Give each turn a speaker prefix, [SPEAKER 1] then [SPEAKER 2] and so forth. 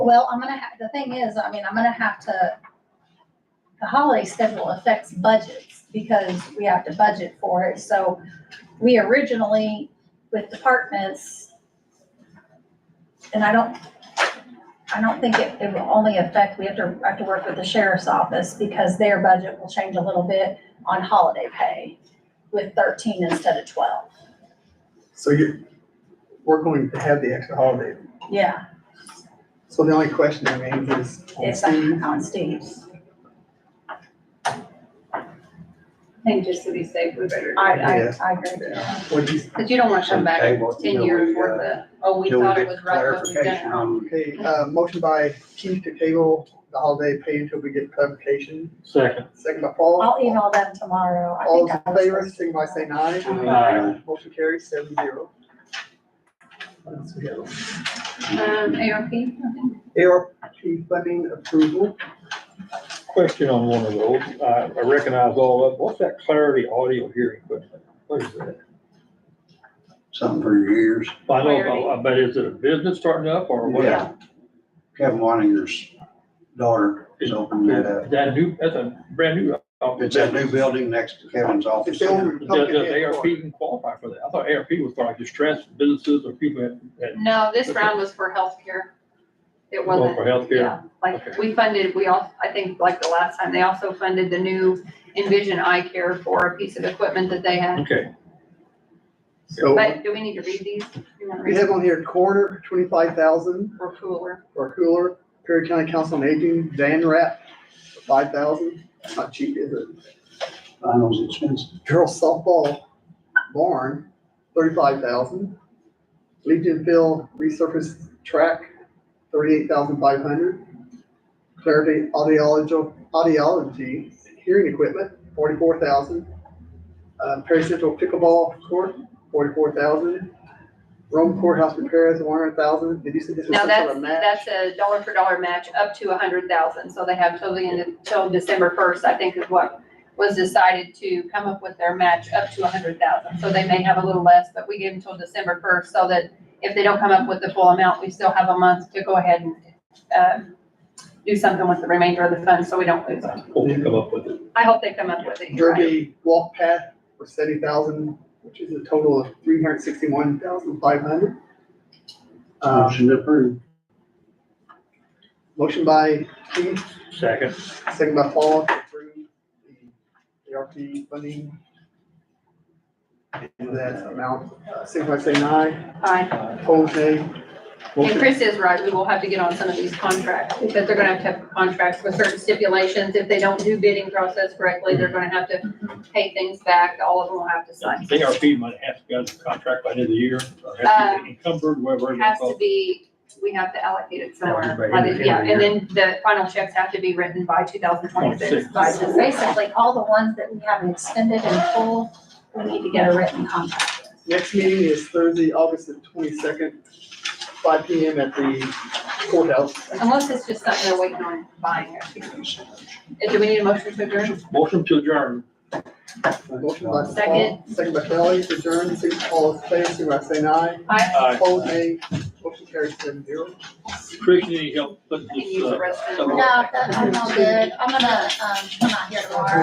[SPEAKER 1] Well, I'm gonna have, the thing is, I mean, I'm gonna have to, the holiday schedule affects budgets because we have to budget for it. So we originally with departments, and I don't, I don't think it, it will only affect, we have to, I have to work with the sheriff's office because their budget will change a little bit on holiday pay with thirteen instead of twelve.
[SPEAKER 2] So you, we're going to have the extra holiday.
[SPEAKER 1] Yeah,
[SPEAKER 2] So the only question that remains is on
[SPEAKER 1] it's
[SPEAKER 2] Steve.
[SPEAKER 1] on Steve's.
[SPEAKER 3] I think just to be safe, we better.
[SPEAKER 1] I, I,
[SPEAKER 2] Yeah.
[SPEAKER 1] I agree.
[SPEAKER 2] Yeah, What do you,
[SPEAKER 3] Because you don't want to come back
[SPEAKER 4] Okay, well,
[SPEAKER 3] ten
[SPEAKER 4] till
[SPEAKER 3] years
[SPEAKER 4] we,
[SPEAKER 3] worth um,
[SPEAKER 4] uh,
[SPEAKER 3] of, oh, we
[SPEAKER 4] till we
[SPEAKER 3] thought it
[SPEAKER 4] get
[SPEAKER 3] was right, but we've done it
[SPEAKER 4] clarification
[SPEAKER 3] wrong.
[SPEAKER 4] on-
[SPEAKER 2] okay, uh, motion by Keith to table the holiday pay until we get clarification.
[SPEAKER 5] Second.
[SPEAKER 2] Second by Paul.
[SPEAKER 1] I'll email them tomorrow. I
[SPEAKER 2] All
[SPEAKER 1] think
[SPEAKER 2] those
[SPEAKER 1] I
[SPEAKER 2] in
[SPEAKER 1] was
[SPEAKER 2] favor,
[SPEAKER 1] supposed to-
[SPEAKER 2] signify by saying aye.
[SPEAKER 5] Aye.
[SPEAKER 2] Motion carries seven zero. What else we have?
[SPEAKER 3] Um, ARP, I think.
[SPEAKER 2] ARP funding approval.
[SPEAKER 5] Question on one of those, I, I recognize all of, what's that clarity audio hearing equipment? What is that?
[SPEAKER 4] something for your ears.
[SPEAKER 5] I
[SPEAKER 3] Clarity.
[SPEAKER 5] know, but is it a business starting up or what?
[SPEAKER 4] Yeah. Kevin Wanninger's daughter is opening that up.
[SPEAKER 5] That new, that's a brand new. uh,
[SPEAKER 4] It's that new building next to Kevin's office.
[SPEAKER 2] It's over.
[SPEAKER 5] Does, does ARP even qualify for that? I thought ARP was for like distressed businesses or people that, that
[SPEAKER 3] No, this round was for healthcare. It
[SPEAKER 5] go
[SPEAKER 3] wasn't.
[SPEAKER 4] Oh,
[SPEAKER 5] for healthcare.
[SPEAKER 3] Yeah, like,
[SPEAKER 5] Okay.
[SPEAKER 3] we funded, we all, I think, like the last time, they also funded the new Envision Eye Care for a piece of equipment that they had.
[SPEAKER 5] Okay,
[SPEAKER 4] Oh.
[SPEAKER 2] So
[SPEAKER 3] But do we need to read these? Do you want to
[SPEAKER 2] we
[SPEAKER 3] read them?
[SPEAKER 2] have on here quarter, twenty-five thousand.
[SPEAKER 3] Or cooler?
[SPEAKER 2] for a cooler. Perry County Council on Aging, Dan Rapp, five thousand, not cheap, is it?
[SPEAKER 4] I know it's expensive.
[SPEAKER 2] Girls softball barn, thirty-five thousand. Legion Field resurfaced track, thirty-eight thousand five hundred. Clarity audiology, audiology hearing equipment, forty-four thousand. Uh, Perry Central pickleball court, forty-four thousand. Rome courthouse repairs, one hundred thousand. Did you say this was
[SPEAKER 3] Now,
[SPEAKER 2] some sort
[SPEAKER 3] that's,
[SPEAKER 2] of match?
[SPEAKER 3] that's a dollar for dollar match up to a hundred thousand, so they have till the end of, till December first, I think is what was decided to come up with their match up to a hundred thousand, so they may have a little less, but we give them till December first, so that if they don't come up with the full amount, we still have a month to go ahead and, um, do something with the remainder of the funds, so we don't lose them.
[SPEAKER 5] we'll come up with it.
[SPEAKER 3] I hope they come up with it, you're right.
[SPEAKER 2] Derby walk path for seventy thousand, which is a total of three hundred sixty-one thousand five hundred. Uh,
[SPEAKER 4] Motion approved.
[SPEAKER 2] motion by Keith,
[SPEAKER 5] Second,
[SPEAKER 2] second by Paul to approve the ARP funding. And that amount, uh, signify by saying aye,
[SPEAKER 3] Aye.
[SPEAKER 2] opposed nay.
[SPEAKER 3] And
[SPEAKER 2] Motion,
[SPEAKER 3] Chris is right, we will have to get on some of these contracts, because they're gonna have to have contracts with certain stipulations. If they don't do bidding process correctly, they're gonna have to pay things back, all of them will have to sign.
[SPEAKER 5] ARP might have to get a contract by the end of the year, or has to
[SPEAKER 3] Uh,
[SPEAKER 5] be encumbered, whatever. it's
[SPEAKER 3] Has to
[SPEAKER 5] called.
[SPEAKER 3] be, we have to allocate it somewhere,
[SPEAKER 4] Right,
[SPEAKER 3] By the-
[SPEAKER 4] right.
[SPEAKER 3] yeah, and then the final checks have to be written by two thousand twenty-six,
[SPEAKER 5] Twenty-six.
[SPEAKER 3] by
[SPEAKER 1] So
[SPEAKER 3] December.
[SPEAKER 1] Basically, all the ones that we haven't extended in full, we need to get a written contract.
[SPEAKER 2] next meeting is Thursday, August the twenty-second, five P M at the courthouse.
[SPEAKER 3] Unless it's just something they're waiting on buying it. Uh, Do we need a motion to adjourn?
[SPEAKER 5] Motion to adjourn.
[SPEAKER 2] Motion by Paul,
[SPEAKER 3] Second.
[SPEAKER 2] second by Kelly, to adjourn, signify all in favor, signify by saying aye.
[SPEAKER 3] Aye.
[SPEAKER 5] Uh,
[SPEAKER 2] Opposed, nay. Motion carries seven zero.
[SPEAKER 5] Chris, you need help putting
[SPEAKER 3] I can
[SPEAKER 5] this,
[SPEAKER 3] use
[SPEAKER 5] uh,
[SPEAKER 3] the restroom.
[SPEAKER 5] some-
[SPEAKER 1] No, that- I'm all good. I'm gonna, um, come out here tomorrow.